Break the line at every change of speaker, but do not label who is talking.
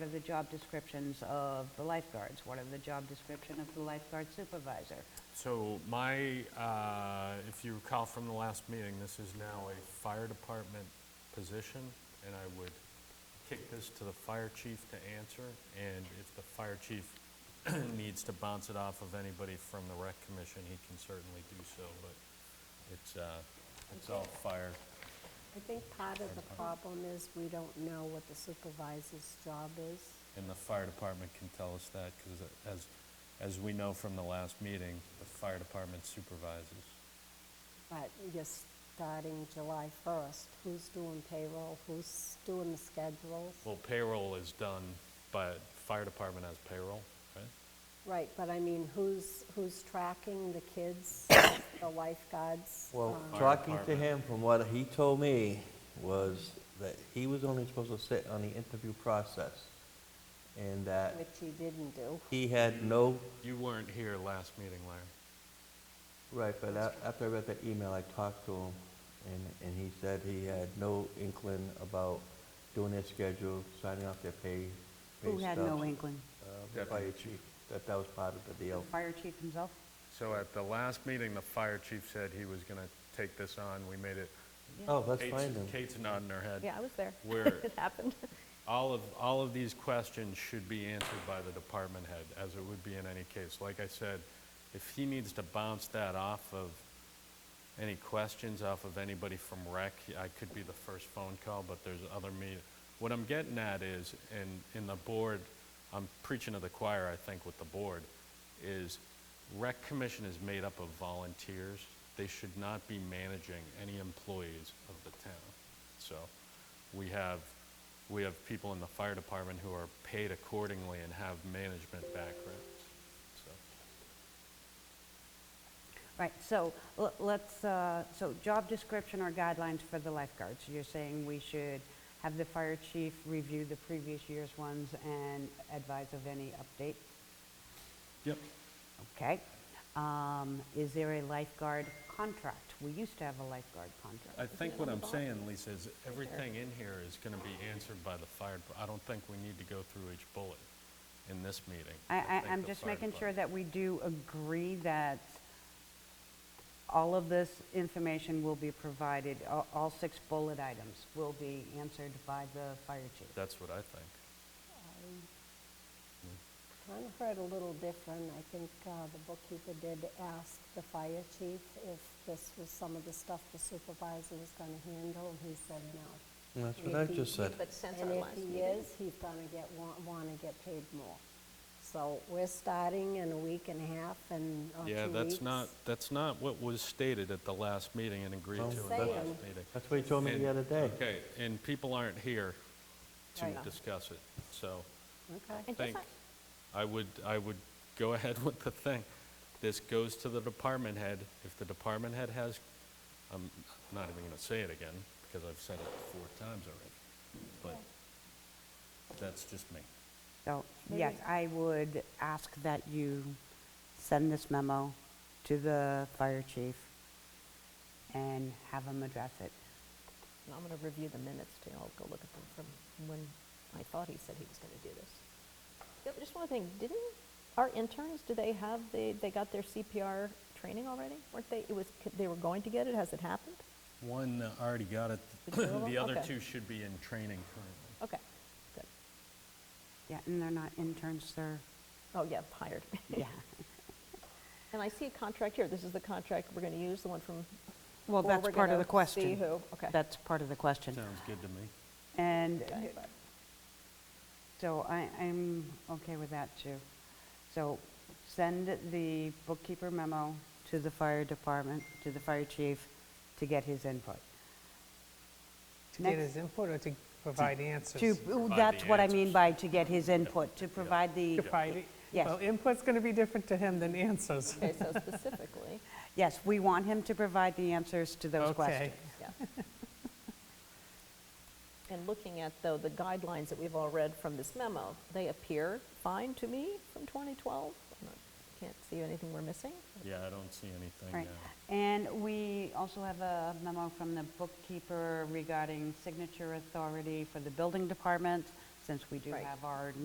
What are the job descriptions of the lifeguards? What are the job description of the lifeguard supervisor?
So my, uh, if you recall from the last meeting, this is now a fire department position, and I would kick this to the fire chief to answer, and if the fire chief needs to bounce it off of anybody from the rec commission, he can certainly do so, but it's, uh, it's all fire.
I think part of the problem is we don't know what the supervisor's job is.
And the fire department can tell us that, because as, as we know from the last meeting, the fire department supervises.
But you're starting July 1st. Who's doing payroll? Who's doing the schedules?
Well, payroll is done by, fire department has payroll, right?
Right, but I mean, who's, who's tracking the kids, the lifeguards?
Well,
um,
Fire
talking to
department.
him, from what he told me, was that he was only supposed to sit on the interview process, and that
Which he didn't do.
he had no,
You weren't here last meeting, Larry.
right, but a- after I read that email, I talked to him, and, and he said he had no inkling about doing their schedule, signing off their pay, pay
Who had no
stubs,
inkling?
uh, the Fire chief, that that was part of the deal.
Fire chief himself?
So at the last meeting, the fire chief said he was gonna take this on, we made it.
Oh, let's
Kate's-
find him.
Kate's nodding her head.
Yeah, I was there.
Where
It happened.
all of, all of these questions should be answered by the department head, as it would be in any case. Like I said, if he needs to bounce that off of any questions off of anybody from rec, I could be the first phone call, but there's other me. What I'm getting at is, and in the board, I'm preaching to the choir, I think, with the board, is rec commission is made up of volunteers. They should not be managing any employees of the town. So we have, we have people in the fire department who are paid accordingly and have management backgrounds, so.
Right, so l- let's, uh, so job description or guidelines for the lifeguards. You're saying we should have the fire chief review the previous year's ones and advise of any update?
Yep.
Okay. Um, Is there a lifeguard contract? We used to have a lifeguard contract.
I think what I'm saying, Lisa, is everything in here is going to be answered by the fire, dep- I don't think we need to go through each bullet in this meeting.
I, I,
think
I'm
the
just
fire
making sure
department-
that we do agree that all of this information will be provided, all, all six bullet items will be answered by the fire chief.
That's what I think.
Kind of heard a little different. I think uh, the bookkeeper did ask the fire chief if this was some of the stuff the supervisor was going to handle, and he said no.
That's what I just said.
But since our
And if
last
he
meeting.
is, he's going to get, want to get paid more. So we're starting in a week and a half and, or two weeks.
Oh,
Yeah, that's not, that's not what was stated at the last meeting and agreed to
Well,
in the
Saying.
last meeting.
That's what he told me
And-
the other day.
Okay, and people aren't here to
Right.
discuss it, so.
Okay.
And just
think,
like-
I would, I would go ahead with the thing. This goes to the department head. If the department head has, I'm not even gonna say it again, because I've said it four times already, but that's just me.
So, yes, I would ask that you send this memo to the fire chief and have him address it.
And I'm going to review the minutes too. I'll go look at them from when I thought he said he was going to do this. Yeah, but Just one thing, didn't our interns, do they have, the? they got their CPR training already? Weren't they, it was, they were going to get it? Has it happened?
One already got it.
The two of them?
The other
Okay.
two should be in training currently.
Okay, good.
Yeah, and they're not interns, they're,
Oh, yeah, hired.
yeah.
And I see a contract here. This is the contract we're going to use, the one from,
Well,
Or
that's
we're
part of
gonna
the question.
see who- okay.
That's part of the question.
Sounds good to me.
And
Okay.
so I, I'm okay with that too. So send the bookkeeper memo to the fire department, to the fire chief, to get his input.
To get
Next-
his input or to provide answers?
To, ooh, that's
the
what I mean
answers.
by to get his input, to provide the,
Provide it?
Yes.
Well, input's going to be different to him than answers.
okay, so specifically,
yes, we want him to provide the answers to those
Okay.
questions.
yeah. And looking at, though, the guidelines that we've all read from this memo, they appear fine to me from 2012. I Can't see anything we're missing.
Yeah, I don't see anything.
Right.
uh,
And we also have a memo from the bookkeeper regarding signature authority for the building department, instance, we do
Right.
have our